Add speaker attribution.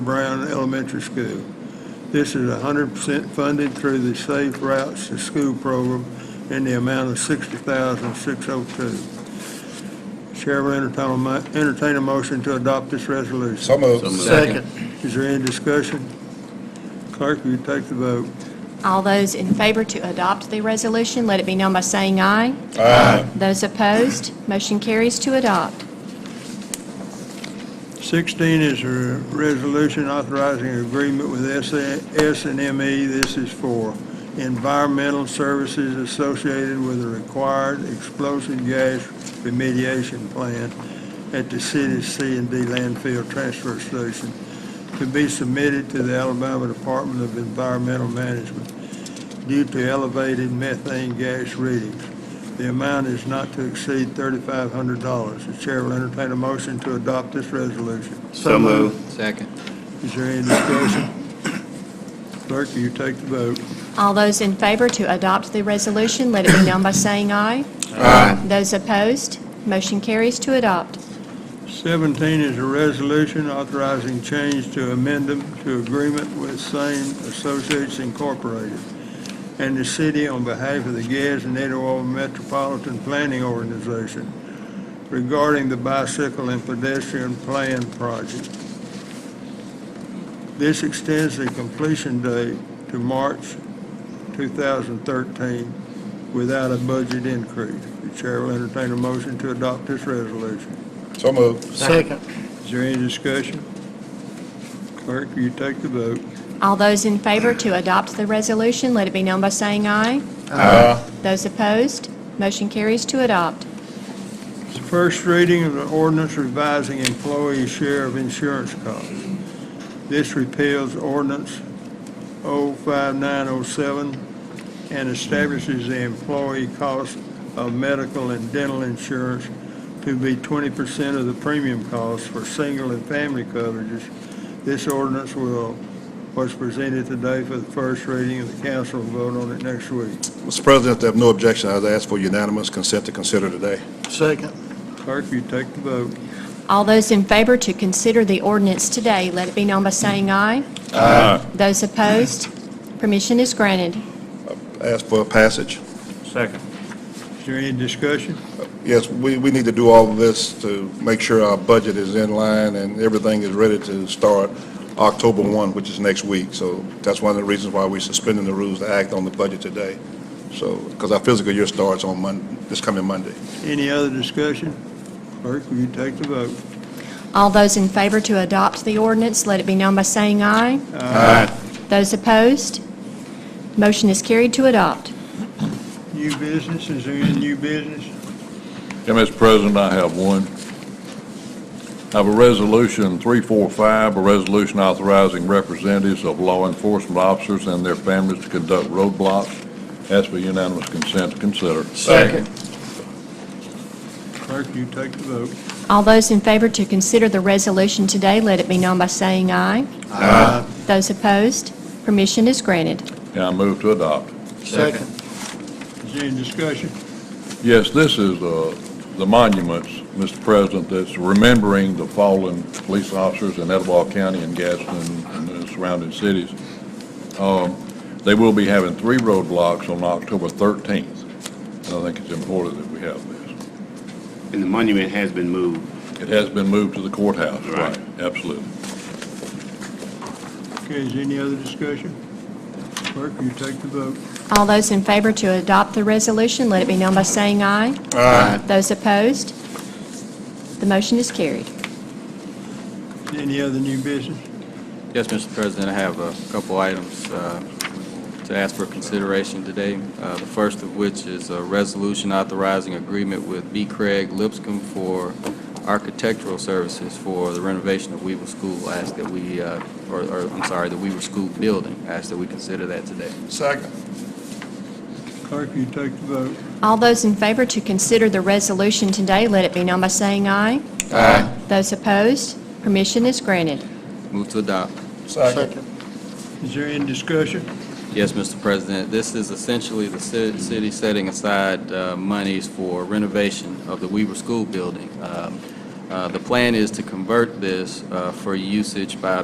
Speaker 1: Brown Elementary School. This is 100% funded through the Safe Routes to School program in the amount of $60,602. Chair will entertain a mo- entertain a motion to adopt this resolution.
Speaker 2: So moved.
Speaker 3: Second.
Speaker 1: Is there any discussion? Clerk, will you take the vote?
Speaker 4: All those in favor to adopt the resolution, let it be known by saying aye.
Speaker 2: Aye.
Speaker 4: Those opposed, motion carries to adopt.
Speaker 1: 16 is a resolution authorizing an agreement with S and ME. This is for environmental services associated with a required explosive gas remediation plan at the city's C and D landfill transfer station to be submitted to the Alabama Department of Environmental Management due to elevated methane gas readings. The amount is not to exceed $3,500. The chair will entertain a motion to adopt this resolution.
Speaker 3: So moved. Second.
Speaker 1: Is there any discussion? Clerk, will you take the vote?
Speaker 4: All those in favor to adopt the resolution, let it be known by saying aye.
Speaker 3: Aye.
Speaker 4: Those opposed, motion carries to adopt.
Speaker 1: 17 is a resolution authorizing change to amendment to agreement with Same Associates Incorporated and the city on behalf of the Gads and Etowah Metropolitan Planning Organization regarding the bicycle and pedestrian plan project. This extends the completion date to March 2013 without a budget increase. The chair will entertain a motion to adopt this resolution.
Speaker 2: So moved.
Speaker 3: Second.
Speaker 1: Is there any discussion? Clerk, will you take the vote?
Speaker 4: All those in favor to adopt the resolution, let it be known by saying aye.
Speaker 2: Aye.
Speaker 4: Those opposed, motion carries to adopt.
Speaker 1: It's the first reading of the ordinance revising employee share of insurance costs. This repeals ordinance 05907 and establishes the employee cost of medical and dental insurance to be 20% of the premium cost for single and family coverages. This ordinance will, was presented today for the first reading, and the council will vote on it next week.
Speaker 2: Mr. President, I have no objection. I'd ask for unanimous consent to consider today.
Speaker 3: Second.
Speaker 1: Clerk, will you take the vote?
Speaker 4: All those in favor to consider the ordinance today, let it be known by saying aye. Aye. Those opposed, permission is granted.
Speaker 2: Ask for passage.
Speaker 3: Second.
Speaker 1: Is there any discussion?
Speaker 2: Yes, we, we need to do all of this to make sure our budget is in line and everything is ready to start October 1, which is next week. So that's one of the reasons why we're suspending the rules to act on the budget today. So, because our physical year starts on Mon, this coming Monday.
Speaker 1: Any other discussion? Clerk, will you take the vote?
Speaker 4: All those in favor to adopt the ordinance, let it be known by saying aye.
Speaker 3: Aye.
Speaker 4: Those opposed, motion is carried to adopt.
Speaker 1: New business, is there any new business?
Speaker 5: Yeah, Mr. President, I have one. I have a resolution 345, a resolution authorizing representatives of law enforcement officers and their families to conduct roadblocks. Ask for unanimous consent to consider.
Speaker 3: Second.
Speaker 1: Clerk, will you take the vote?
Speaker 4: All those in favor to consider the resolution today, let it be known by saying aye.
Speaker 3: Aye.
Speaker 4: Those opposed, permission is granted.
Speaker 5: And I move to adopt.
Speaker 3: Second.
Speaker 1: Is there any discussion?
Speaker 5: Yes, this is uh, the monuments, Mr. President, that's remembering the fallen police officers in Etowah County and Gaston and the surrounding cities. Um, They will be having three roadblocks on October 13th. And I think it's important that we have this.
Speaker 6: And the monument has been moved.
Speaker 5: It has been moved to the courthouse,
Speaker 6: Right.
Speaker 5: right? Absolutely.
Speaker 1: Okay, is there any other discussion? Clerk, will you take the vote?
Speaker 4: All those in favor to adopt the resolution, let it be known by saying aye.
Speaker 3: Aye.
Speaker 4: Those opposed, the motion is carried.
Speaker 1: Is there Any other new business?
Speaker 7: Yes, Mr. President, I have a couple items uh, to ask for consideration today. Uh, The first of which is a resolution authorizing agreement with B. Craig Lipscomb for architectural services for the renovation of Weaver School. I Ask that we, uh, or, or, I'm sorry, the Weaver School building. I Ask that we consider that today.
Speaker 2: Second.
Speaker 1: Clerk, will you take the vote?
Speaker 4: All those in favor to consider the resolution today, let it be known by saying aye.
Speaker 3: Aye.
Speaker 4: Those opposed, permission is granted.
Speaker 7: Move to adopt.
Speaker 3: Second.
Speaker 1: Is there any discussion?
Speaker 7: Yes, Mr. President, this is essentially the ci- city setting aside uh, monies for renovation of the Weaver School building. Um, uh, The plan is to convert this uh, for usage by